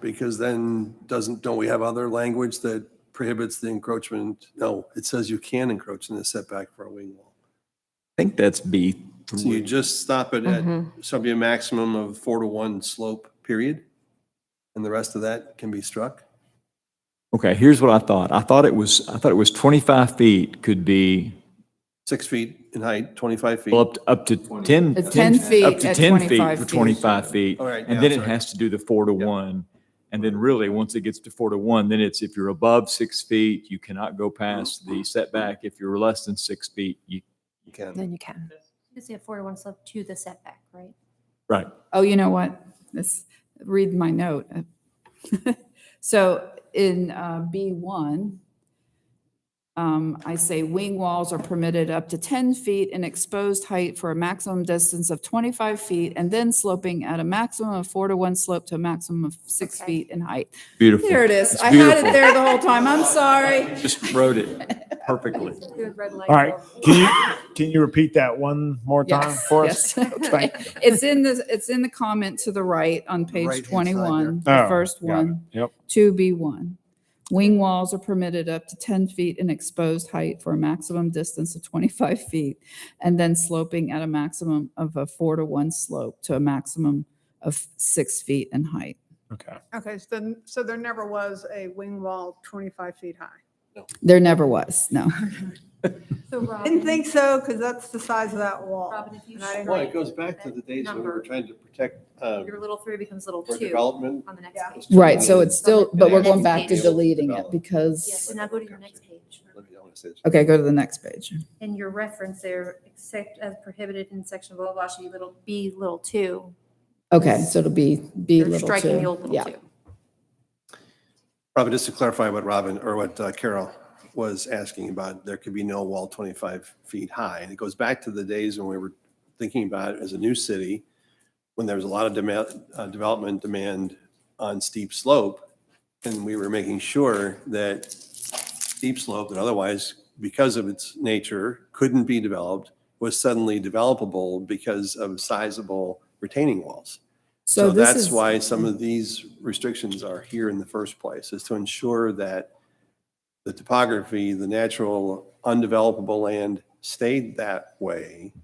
Because then doesn't, don't we have other language that prohibits the encroachment? No, it says you can encroach in the setback for a wing wall. I think that's B. So you just stop it at something a maximum of four to one slope, period? And the rest of that can be struck? Okay, here's what I thought. I thought it was, I thought it was 25 feet could be Six feet in height, 25 feet. well, up, up to 10. At 10 feet Up to at 10 feet 25 for feet. 25 feet. All right, And yeah, then it sorry. has to do the four to one. And then really, once it gets to four to one, then it's if you're above six feet, you cannot go past the setback. If you're less than six feet, you, You can. Then you can. Because they have four to one slope to the setback, right? right. Oh, you know what? This, read my note. So in uh, B1, um, I say wing walls are permitted up to 10 feet in exposed height for a maximum distance of 25 feet and then sloping at a maximum of four to one slope to a maximum of six Okay. feet in height. Beautiful. There it is. It's I had beautiful. it there the whole time. I'm sorry. Just wrote it perfectly. Good red light. All right, can you, can you repeat that one more time Yes, for us? yes, okay. It's in the, it's in the comment to the right on page Right-hand side there. 21, the Oh, first got it. one. Yep. 2B1. Wing walls are permitted up to 10 feet in exposed height for a maximum distance of 25 feet and then sloping at a maximum of a four to one slope to a maximum of six feet in height. Okay. Okay, so then, so there never was a wing wall 25 feet high? There never was, no. So Didn't Robin, think so, because that's the size of that wall. Robin, if you And I didn't- strike. Well, it goes back to the days when we were Number. trying to protect, uh, Your little three becomes little for two development. on the next Yeah. page. Right, so it's still, but we're going Next back to page. deleting it Develop. Yeah, because, so now go to your next page. Let me- I wanna say this. okay, go to the next page. And your reference there, except as prohibited in section blah, blah, blah, should be little, B little two. Okay, so it'll be B You're little striking the two. old Yeah. little two. Robin, just to clarify what Robin, or what uh, Carol was asking about, there could be no wall 25 feet high. And it goes back to the days when we were thinking about it as a new city, when there was a lot of demand, uh, development demand on steep slope. And we were making sure that steep slope that otherwise, because of its nature, couldn't be developed, was suddenly developable because of sizable retaining walls. So So this that's is, why some of these restrictions are here in the first place, is to ensure that the topography, the natural undevelopable land stayed that way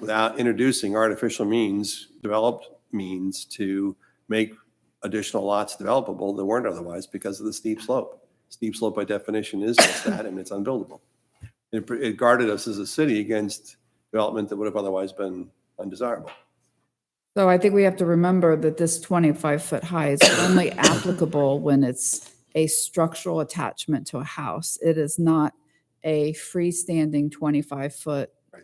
without introducing artificial means, developed means to make additional lots developable that weren't otherwise because of the steep slope. Steep slope by definition is just that, and it's unbuildable. It it guarded us as a city against development that would have otherwise been undesirable. so I think we have to remember that this 25-foot high is only applicable when it's a structural attachment to a house. It is not a freestanding 25-foot Right.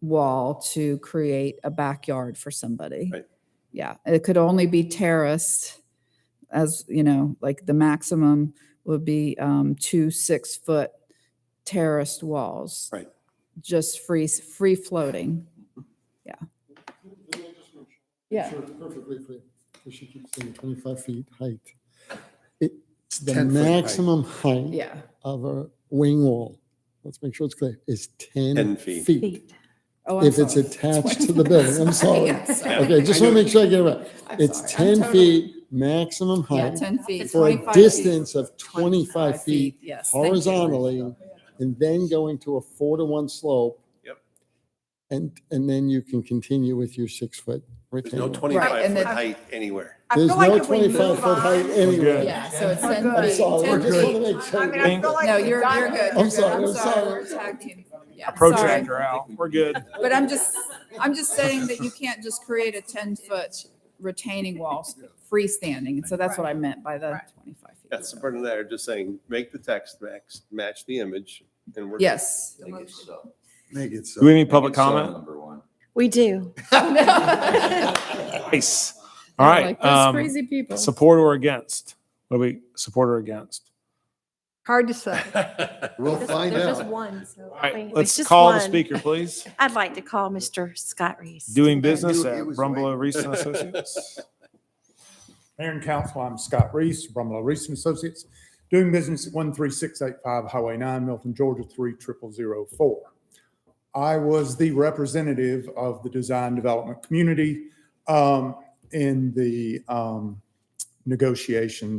wall to create a backyard for somebody. Right. Yeah, it could only be terraced as, you know, like the maximum would be um, two six-foot terraced walls. Right. Just free, free floating. Yeah. Sure, Perfectly clear. Because she keeps saying 25 feet height. It's the 10 foot height. maximum height Yeah. of a wing wall. Let's make sure it's clear. Is 10 10 feet. feet. Oh, I'm If it's sorry. attached to the building, I'm sorry. Okay, just want to make sure I get it right. I'm It's sorry. I'm 10 totally- feet maximum Yeah, height 10 feet. for 25 a feet. distance of 25 feet yes, thank you. horizontally and then going to a four to one slope. Yep. And, and then you can continue with your six foot. There's no retaining wall. 25 and foot then- height anywhere. I There's feel like no if we move 25 foot height on- anywhere. Yeah, so it's We're 10 feet. good. I'm sorry, I 10 just feet. want to make I sure. mean, I feel like No, we've you're, done you're it. good. I'm You're good. sorry, I'm sorry. We're tag team. Yeah, sorry. Protractor out, we're good. But I'm just, I'm just saying that you can't just create a 10-foot retaining wall freestanding. And so that's what I meant by the Right. 25 feet. Yes, the burden there, just saying, make the text max, match the image, and we're. Yes. Make it so. Do we have any public uh, comment? We do. Nice. All right. Like those um, crazy people. Support or against? What do we, support or against? Hard to say. We'll There's find there's just out. one, so. All right, Wait, it's let's just call the one. speaker, please. I'd like to call Mr. Scott Reese. Doing business it at was Rumble Reese and Associates. Mayor and Council, I'm Scott Reese, Brumlow Reese and Associates, doing business at 13685 Highway 9, Milton, Georgia 30004. I was the representative of the design development community um, in the um, negotiations